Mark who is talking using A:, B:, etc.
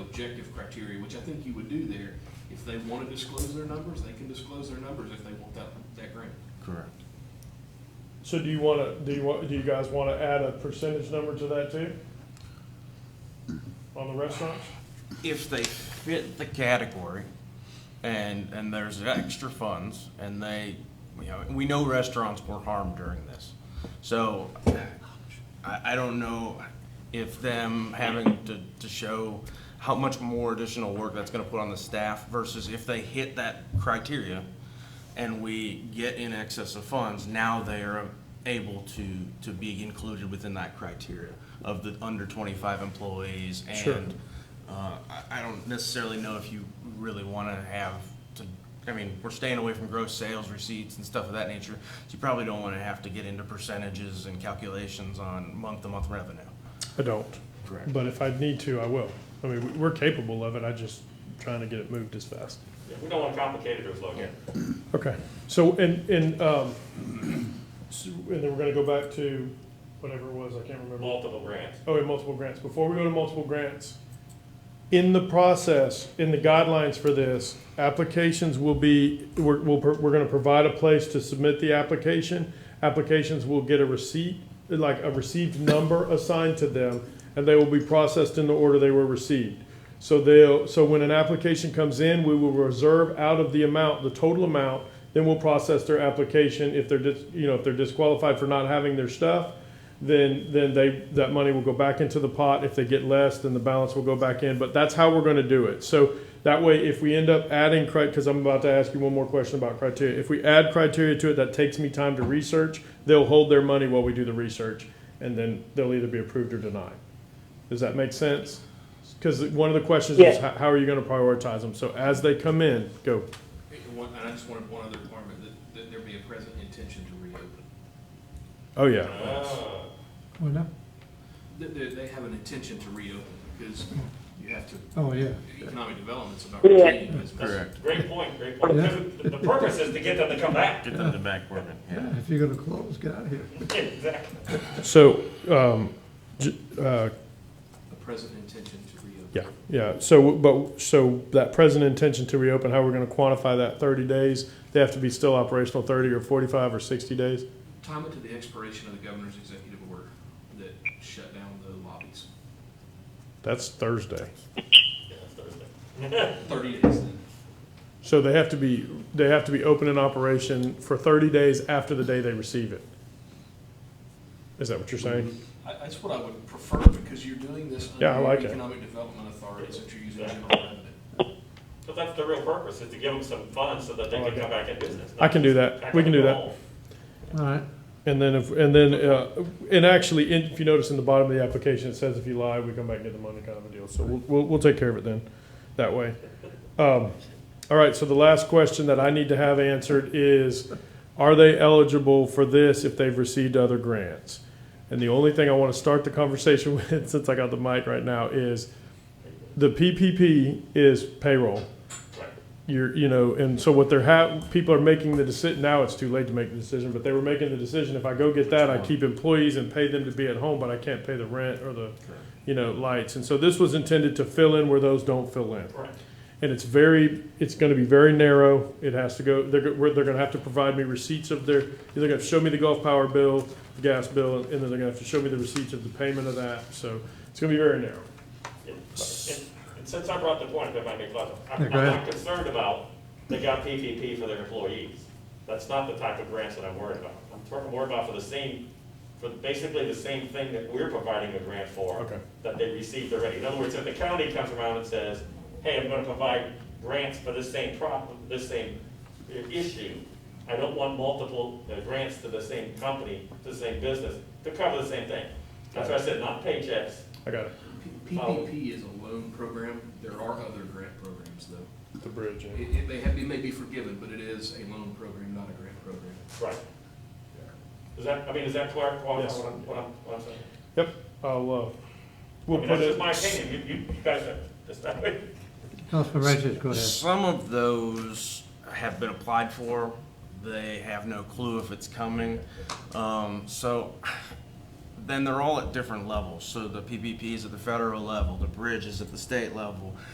A: objective criteria, which I think you would do there. If they want to disclose their numbers, they can disclose their numbers if they want that, that grant.
B: Correct.
C: So do you wanna, do you want, do you guys wanna add a percentage number to that too? On the restaurants?
B: If they fit the category and, and there's extra funds and they, you know, we know restaurants were harmed during this. So I, I don't know if them having to, to show how much more additional work that's gonna put on the staff versus if they hit that criteria and we get in excess of funds, now they are able to, to be included within that criteria of the under twenty-five employees
C: Sure.
B: and uh, I, I don't necessarily know if you really want to have to, I mean, we're staying away from gross sales receipts and stuff of that nature. So you probably don't want to have to get into percentages and calculations on month-to-month revenue.
C: I don't.
B: Correct.
C: But if I need to, I will. I mean, we- we're capable of it, I just trying to get it moved as fast.
D: Yeah, We don't want complicated or slow.
C: Okay, so, and, and, um, so- and then we're gonna go back to whatever it was, I can't remember.
D: multiple grants.
C: Oh, and multiple grants. Before we go to multiple grants, in the process, in the guidelines for this, applications will be, we're, we'll, pro- we're gonna provide a place to submit the application. Applications will get a receipt, like a received number assigned to them, and they will be processed in the order they were received. So they'll, so when an application comes in, we will reserve out of the amount, the total amount, then we'll process their application if they're dis, you know, if they're disqualified for not having their stuff then, then they, that money will go back into the pot. If they get less, then the balance will go back in. But that's how we're gonna do it. So that way, if we end up adding cri, because I'm about to ask you one more question about criteria. If we add criteria to it, that takes me time to research. They'll hold their money while we do the research, and then they'll either be approved or denied. Does that make sense? Because one of the questions is,
E: Yeah.
C: how how are you gonna prioritize them? So as they come in, go.
A: And one- and I just wanted one other requirement, that, that there be a present intention to reopen.
C: Oh, yeah.
D: Ah,
F: Well, no,
A: That, that they have an intention to reopen, because you have to,
F: oh, yeah.
A: economic development's about
E: Yeah.
A: retaining business.
B: Correct.
D: Great point, great point.
F: Yeah.
D: The the purpose is to get them to come back.
B: Get them to back working,
F: Yeah, if you're gonna close, get out of here.
D: Exactly.
C: So, um, j- uh,
A: A present intention to reopen.
C: Yeah, yeah, so, but, so that present intention to reopen, how we're gonna quantify that, thirty days? They have to be still operational thirty or forty-five or sixty days?
A: Time it to the expiration of the governor's executive order that shut down the lobbies.
C: That's Thursday.
D: Yeah, that's Thursday.
A: Thirty days then.
C: So they have to be, they have to be open in operation for thirty days after the day they receive it. Is that what you're saying?
A: I- That's what I would prefer, because you're doing this
C: Yeah, I
A: under
C: like it.
A: economic development authorities that you're using general revenue.
D: But that's the real purpose, is to give them some funds so that they can come back in business.
C: Oh, I can do that,
D: Back
C: we
D: on
C: can do
D: the
C: that.
D: roll.
F: All right,
C: And then if, and then, uh, and actually, in- if you notice in the bottom of the application, it says if you lie, we come back and get the money kind of a deal. So we'll, we'll, we'll take care of it then, that way. Um, all right, so the last question that I need to have answered is, are they eligible for this if they've received other grants? And the only thing I want to start the conversation with, since I got the mic right now, is the PPP is payroll
D: Right.
C: you're, you know, and so what they're ha- people are making the decision, now it's too late to make the decision, but they were making the decision, if I go get that, I keep employees and pay them to be at home, but I can't pay the rent or the, you know, lights. And so this was intended to fill in where those don't fill in.
D: Right.
C: And it's very, it's gonna be very narrow, it has to go, they're, go- we're- they're gonna have to provide me receipts of their, they're gonna show me the Gulf Power bill, the gas bill, and then they're gonna have to show me the receipts of the payment of that, so it's gonna be very narrow.
D: And and since I brought the point, if I may, Clive, I'm
F: Yeah,
D: I'm
F: go ahead.
D: not concerned about they got PPP for their employees. That's not the type of grants that I'm worried about. I'm talking more about for the same, for basically the same thing that we're providing a grant for.
C: Okay.
D: That they received already. In other words, if the county comes around and says, hey, I'm gonna provide grants for this same problem, this same uh, issue, I don't want multiple uh, grants to the same company, to the same business, to cover the same thing. That's why I said not paychecks,
C: I got it,
A: P- PPP is a loan program. There are other grant programs, though.
C: the bridge. yeah.
A: It, it may have, it may be forgiven, but it is a loan program, not a grant program.
D: Right. Is that, I mean, is that clear, Paul,
C: Yes.
D: what I'm, what I'm, what I'm saying?
C: Yep, I'll, uh,
D: I
C: we'll
D: mean,
C: put it.
D: that's just my opinion, you, you, you guys are, just,
F: Councilman Ratcliffe, go ahead.
B: Some of those have been applied for. They have no clue if it's coming. Um, so then they're all at different levels. So the PPP is at the federal level, the bridge is at the state level,